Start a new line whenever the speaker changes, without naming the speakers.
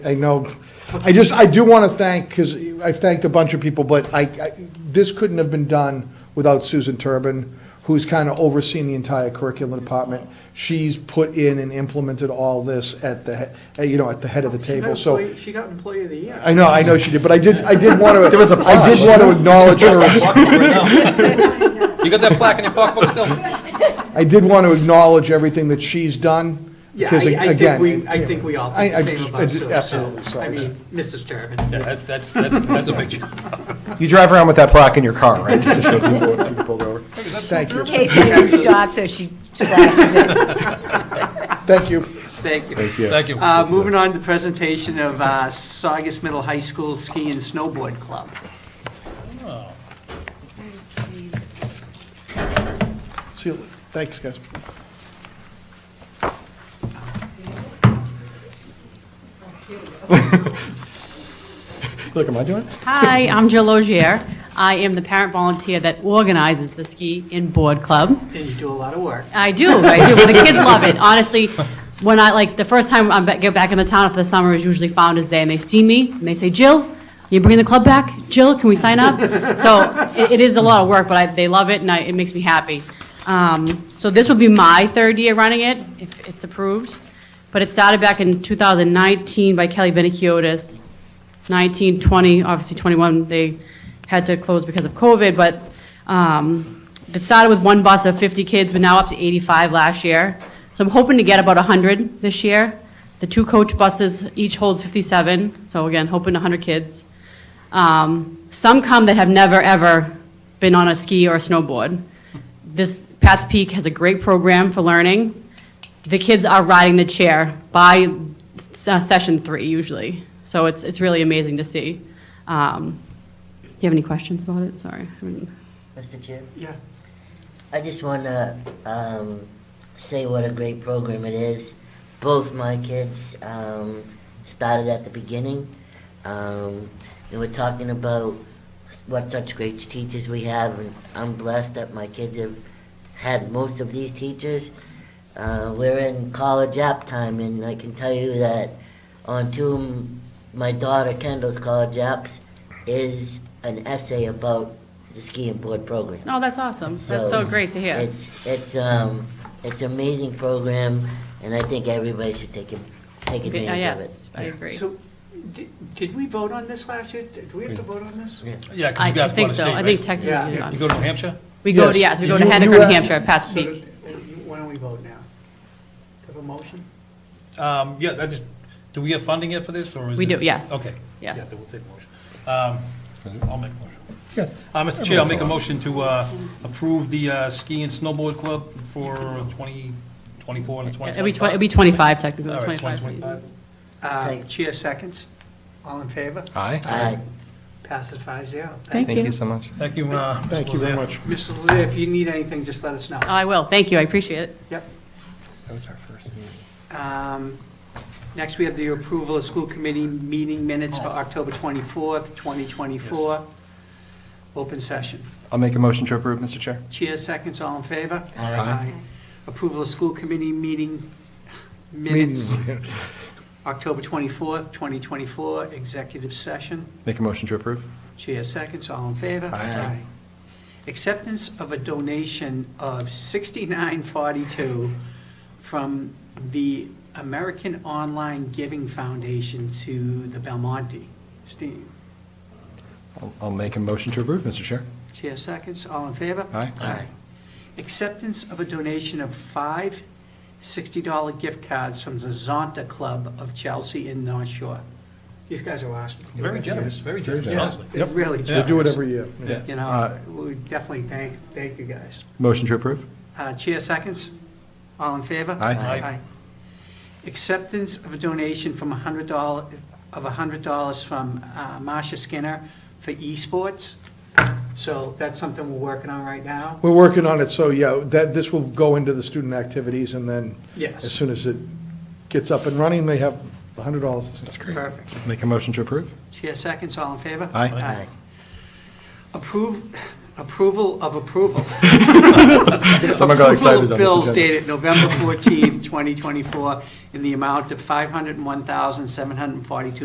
I know, I just, I do want to thank, because I've thanked a bunch of people, but I, I- this couldn't have been done without Susan Turbin, who's kind of overseeing the entire curriculum department. She's put in and implemented all this at the, he- you know, at the head of the
She
table,
got
so.
employee- She got employee of the year.
I know, I know she did, but I did, I did want to. There was a I did want to acknowledge her,
You got that plaque in your pocketbook still?
I did want to acknowledge everything that she's done.
Yeah,
because
I- I think
again,
we, I think we all think
I- I
the same
just- I
about
just-
Susan.
absolutely, so
I
it's-
mean, Mrs. Turbin.
That's, that's, that's a big deal.
You drive around with that plaque in your car, right? Just to show people what people pulled over.
Thank you,
In case anyone stops or she flashes it.
thank you.
Thank you.
Thank you.
Thank you.
Um,
Uh, Moving on to the presentation of uh, Saugus Middle High School Ski and Snowboard Club.
See you, later. thanks, guys.
Look, am I doing it?
Hi, I'm Jill Ogier. I am the parent volunteer that organizes the Ski and Board Club.
And you do a lot of work.
I do, I do. The kids love it. Honestly, when I, like, the first time I am get back in the town for the summer is usually Founder's Day, and they see me, and they say, "Jill, you bringing the club back? Jill, can we sign up?" So it it is a lot of work, but I, they love it, and I, it makes me happy. Um, So this will be my third year running it, if it's approved. But it started back in 2019 by Kelly Benikiotis. 19, 20, obviously 21, they had to close because of COVID, but um, it started with one bus of 50 kids, but now up to 85 last year. So I'm hoping to get about 100 this year. The two coach buses each holds 57, so again, hoping 100 kids. Um, Some come that have never, ever been on a ski or a snowboard. This, Pat's Peak has a great program for learning the kids are riding the chair by s- uh, session three usually. So it's, it's really amazing to see. Um, do you have any questions about it? Sorry. I mean-
Mr. Chair,
Yeah.
I just want to um, say what a great program it is. Both my kids um, started at the beginning. Um, and we're talking about what such great teachers we have, and I'm blessed that my kids have had most of these teachers. Uh, we're in college app time, and I can tell you that on two of my daughter Kendall's college apps is an essay about the ski and board program.
Oh, that's awesome. That's so great to hear.
It's it's um it's an amazing program, and I think everybody should take it take
Okay,
advantage
uh,
of it.
Yes, I agree.
So, di- did we vote on this last year? Did we have to vote on this?
Yeah.
Yeah, because
I
you guys bought
think
a
so.
state,
I think
right?
Yeah.
technically,
You
yeah.
go to New Hampshire?
we go to,
Yes.
yes, we go to
You-
Hennecker,
you
New
asked-
Hampshire, at Pat's
So,
Peak.
uh, Why don't we vote now? Do you have a motion?
Um, yeah, that is, do we have funding yet for this, or is it?
We do, yes.
Okay.
Yes.
Yeah, then we'll take a motion. Um, I'll make a motion. Uh, Mr. Chair, I'll make a motion to, uh, approve the, uh, ski and snowboard club for twenty, twenty-four and twenty
It'll be 20, it'll be 25 technically,
All right,
25 seats.
2025.
Uh,
Second.
Chair seconds. All in favor?
Hi.
All right.
Passes five zero.
Thank
Thank
you.
you so much.
Thank you, uh, Mr.
Thank you very
Lozera.
much.
Mrs. Lizzie, if you need anything, just let us know.
I will. Thank you. I appreciate it.
Yep.
That was our first meeting.
Um, Next, we have the approval of school committee meeting minutes for October 24th, 2024. Open session.
I'll make a motion to approve, Mr. Chair.
Chair seconds, all in favor?
Aye.
Aye.
Approval of school committee meeting minutes, October 24th, 2024, executive session.
Make a motion to approve.
Chair seconds, all in favor?
Aye.
Acceptance of a donation of 6942 from the American Online Giving Foundation to the Belmonte. Steve,
I'll- I'll make a motion to approve, Mr. Chair.
chair seconds, all in favor?
Aye.
Aye.
Acceptance of a donation of five $60 gift cards from the Zonta Club of Chelsea in North Shore. These guys are awesome.
Very generous, very generous, honestly.
They really
They do it
do.
every year.
Yeah.
You know,
Uh,
we definitely thank, thank you guys.
Motion to approve.
Uh, Chair seconds. All in favor?
Aye.
Aye.
Acceptance of a donation from $100, of $100 from uh, Marcia Skinner for esports. So that's something we're working on right now.
We're working on it, so, yeah, that, this will go into the student activities, and then
Yes.
as soon as it gets up and running, they have a hundred dollars and stuff.
That's great.
Perfect.
Make a motion to approve.
Chair seconds, all in favor?
Aye.
Aye.
Approve, approval of approval.
Someone got excited on
Approval
this
of bills
agenda.
dated November 14th, in 2024 in the amount of $501,742.